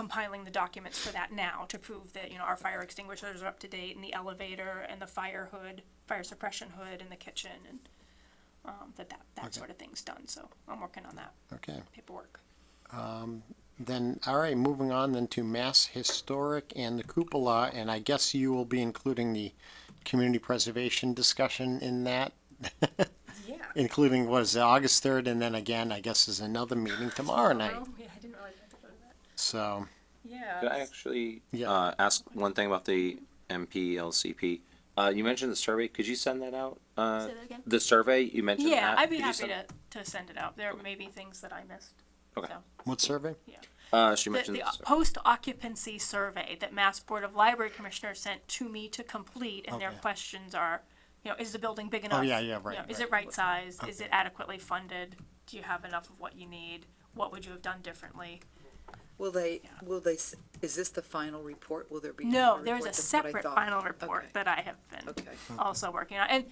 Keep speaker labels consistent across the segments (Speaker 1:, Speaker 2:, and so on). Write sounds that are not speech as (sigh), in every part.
Speaker 1: compiling the documents for that now to prove that, you know, our fire extinguishers are up to date and the elevator and the fire hood, fire suppression hood in the kitchen and, um, that that, that
Speaker 2: Okay.
Speaker 1: sort of thing's done, so I'm working on that
Speaker 2: Okay,
Speaker 1: paperwork.
Speaker 2: then, all right, moving on then to Mass Historic and the cupola, and I guess you will be including the community preservation discussion in that,
Speaker 1: Yeah.
Speaker 2: including what is it, August third, and then again, I guess is another meeting tomorrow night,
Speaker 1: Well, yeah, I didn't realize I had to go to that.
Speaker 2: so,
Speaker 1: Yeah.
Speaker 3: Could I actually
Speaker 2: Yeah.
Speaker 3: uh, ask one thing about the MPLCP? Uh, you mentioned the survey. Could you send that out? Uh,
Speaker 4: Say that again?
Speaker 3: the survey you mentioned.
Speaker 1: Yeah,
Speaker 3: that.
Speaker 1: I'd be
Speaker 3: Could you
Speaker 1: happy
Speaker 3: send-
Speaker 1: to, to send it out. There may be things that I missed.
Speaker 3: Okay.
Speaker 1: so.
Speaker 2: what survey?
Speaker 3: Uh, she
Speaker 1: The,
Speaker 3: mentioned
Speaker 1: the
Speaker 3: the survey.
Speaker 1: post occupancy survey that Mass Board of Library Commissioners sent to me to complete, and their
Speaker 2: Okay.
Speaker 1: questions are, you know, is the building big
Speaker 3: Oh,
Speaker 1: enough?
Speaker 2: Oh, yeah, yeah,
Speaker 1: You
Speaker 2: right,
Speaker 1: know, Is
Speaker 2: right.
Speaker 1: it right sized? Is it
Speaker 2: Okay.
Speaker 1: adequately funded? Do you have enough of what you need? What would you have done differently?
Speaker 5: Will they, will they, s- is this the final report? Will there be?
Speaker 1: No,
Speaker 5: final
Speaker 1: there's a
Speaker 5: report? That's what I
Speaker 1: separate
Speaker 5: thought.
Speaker 1: final report
Speaker 5: Okay.
Speaker 1: that I have been (laughs)
Speaker 5: Okay.
Speaker 1: also working on, and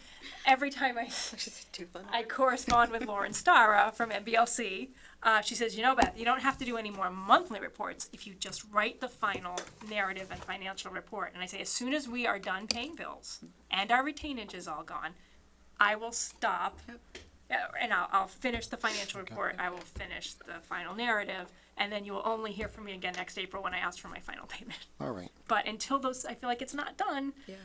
Speaker 1: every time
Speaker 5: (laughs)
Speaker 1: I (laughs)
Speaker 5: Too funny.
Speaker 1: I correspond with Lauren Stara from NBLC. Uh, she says, you know, Beth, you don't have to do any more monthly reports if you just write the final narrative and financial report. And I say, as soon as we are done paying bills and our retainage is all gone, I will stop uh, and I'll, I'll finish the financial report. I will finish the final narrative. And then you will only hear from me again next April when I ask for my final payment.
Speaker 2: All right,
Speaker 1: But until those, I feel like it's not done,
Speaker 5: Yeah,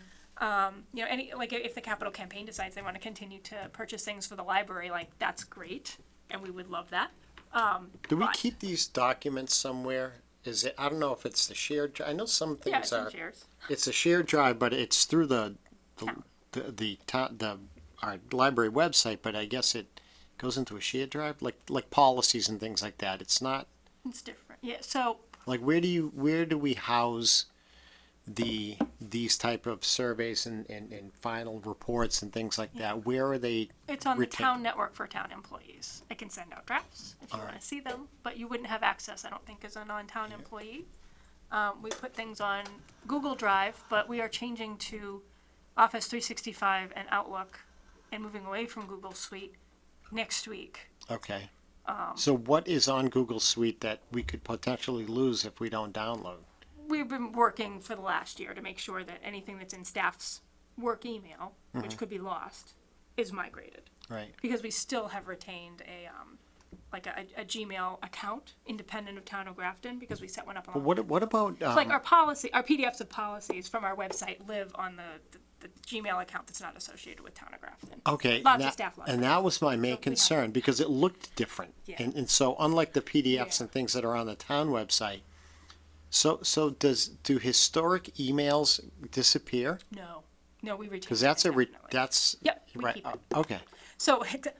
Speaker 1: you know, any like if the capital campaign decides they want to continue to purchase things for the library, like that's great, and we would love that.
Speaker 2: do we
Speaker 1: Right.
Speaker 2: keep these documents somewhere? Is it, I don't know if it's the shared, dri- I know some
Speaker 1: Yeah, it's
Speaker 2: things
Speaker 1: in
Speaker 2: are,
Speaker 1: shares.
Speaker 2: it's a shared drive, but it's through the, the,
Speaker 1: Town.
Speaker 2: the, the, to- the, our library website, but I guess it goes into a shared drive, like, like policies and things like that, it's not,
Speaker 1: It's different. Yeah. So
Speaker 2: like where do you where do we house the these type of surveys and, and, and final reports and things like that where are they
Speaker 1: it's on the
Speaker 2: Retain-
Speaker 1: town network for town employees. I can send out drafts if you want to see them, but you wouldn't have access, I don't think, as a non-town employee. Um, we put things on Google Drive, but we are changing to Office 365 and Outlook, and moving away from Google Suite next week.
Speaker 2: okay
Speaker 1: Um.
Speaker 2: so what is on google suite that we could potentially lose if we don't download
Speaker 1: we've been working for the last year to make sure that anything that's in staff's work email,
Speaker 2: Mm-hmm.
Speaker 1: which could be lost, is migrated.
Speaker 2: right
Speaker 1: Because we still have retained a, um, like a, a Gmail account independent of Town of Grafton because we set one up
Speaker 2: but
Speaker 1: on.
Speaker 2: what what about um,
Speaker 1: It's like our policy, our PDFs of policies from our website live on the, the, the Gmail account that's not associated with Town of Grafton.
Speaker 2: okay
Speaker 1: lots of
Speaker 2: that-
Speaker 1: staff logs.
Speaker 2: and that was my main
Speaker 1: have-
Speaker 2: concern because it looked different
Speaker 1: Yeah.
Speaker 2: and, and so unlike the pdfs
Speaker 1: Yeah.
Speaker 2: and things that are on the town website so so does do historic emails disappear
Speaker 1: No, no, we retain.
Speaker 2: Because that's a, re-
Speaker 1: indefinitely.
Speaker 2: that's.
Speaker 1: Yep, we
Speaker 2: right,
Speaker 1: keep it.
Speaker 2: uh, Okay,
Speaker 1: So ex-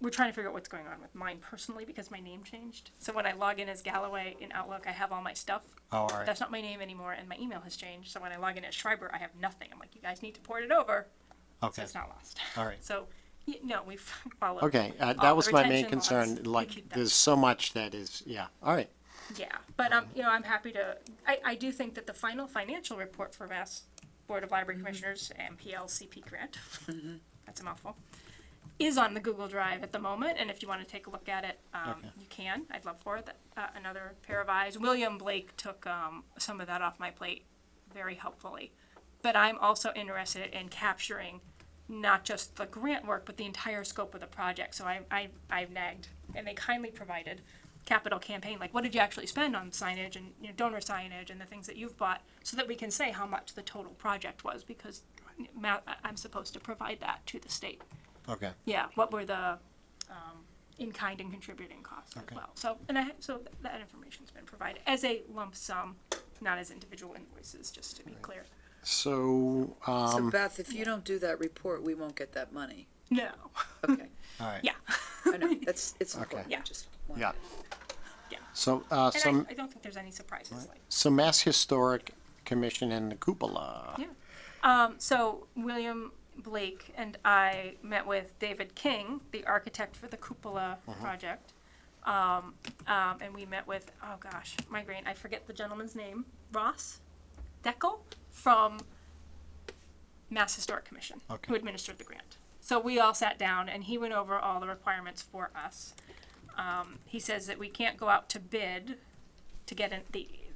Speaker 1: we're trying to figure out what's going on with mine personally because my name changed. So when I log in as Galloway in Outlook, I have all my stuff.
Speaker 2: Oh, all right.
Speaker 1: That's not my name anymore, and my email has changed. So when I log in as Schreiber, I have nothing. I'm like, you guys need to port it over so
Speaker 2: okay,
Speaker 1: it's not lost. (laughs)
Speaker 2: all right.
Speaker 1: So y- no, we (laughs) followed.
Speaker 2: Okay, uh,
Speaker 1: all the
Speaker 2: that was my main
Speaker 1: retention laws.
Speaker 2: concern,
Speaker 1: We
Speaker 2: like,
Speaker 1: keep that.
Speaker 2: there's so much that is, yeah, all right,
Speaker 1: Yeah, but um, you know, I'm happy to, I, I do think that the final financial report for Mass Board of Library Commissioners, MPLCP grant, (laughs) that's a mouthful, is on the Google Drive at the moment, and if you wanna take a look at it, um, you can, I'd love for it, uh, another pair of eyes. William Blake took, um, some of that off my plate very helpfully. But I'm also interested in capturing not just the grant work, but the entire scope of the project. So I, I, I've nagged, and they kindly provided capital campaign, like what did you actually spend on signage and you know, donor signage and the things that you've bought, so that we can say how much the total project was, because ma- I'm supposed to provide that to the state.
Speaker 2: okay,
Speaker 1: Yeah, what were the, um, in-kind and contributing costs as well. So, and I, so th- that information's been provided as a lump sum, not as individual invoices, just to be clear.
Speaker 2: so, uh, all
Speaker 5: so Beth, if you don't do that report, we won't get that money.
Speaker 1: No,
Speaker 5: Okay,
Speaker 2: right.
Speaker 1: yeah, (laughs)
Speaker 5: I know, that's, it's important, I
Speaker 1: Yeah.
Speaker 5: (laughs) just wanted
Speaker 2: Yeah,
Speaker 1: yeah.
Speaker 2: so, uh,
Speaker 1: And
Speaker 2: some,
Speaker 1: I, I don't think there's any surprises, like,
Speaker 2: so Mass Historic Commission and the cupola,
Speaker 1: Yeah. Um, so William Blake and I met with David King, the architect for the Cupola project. Um, um, and we met with, oh gosh, migraine, I forget the gentleman's name, Ross Deckel from Mass Historic Commission, who
Speaker 2: Okay.
Speaker 1: administered the grant. So we all sat down and he went over all the requirements for us. Um, he says that we can't go out to bid to get in the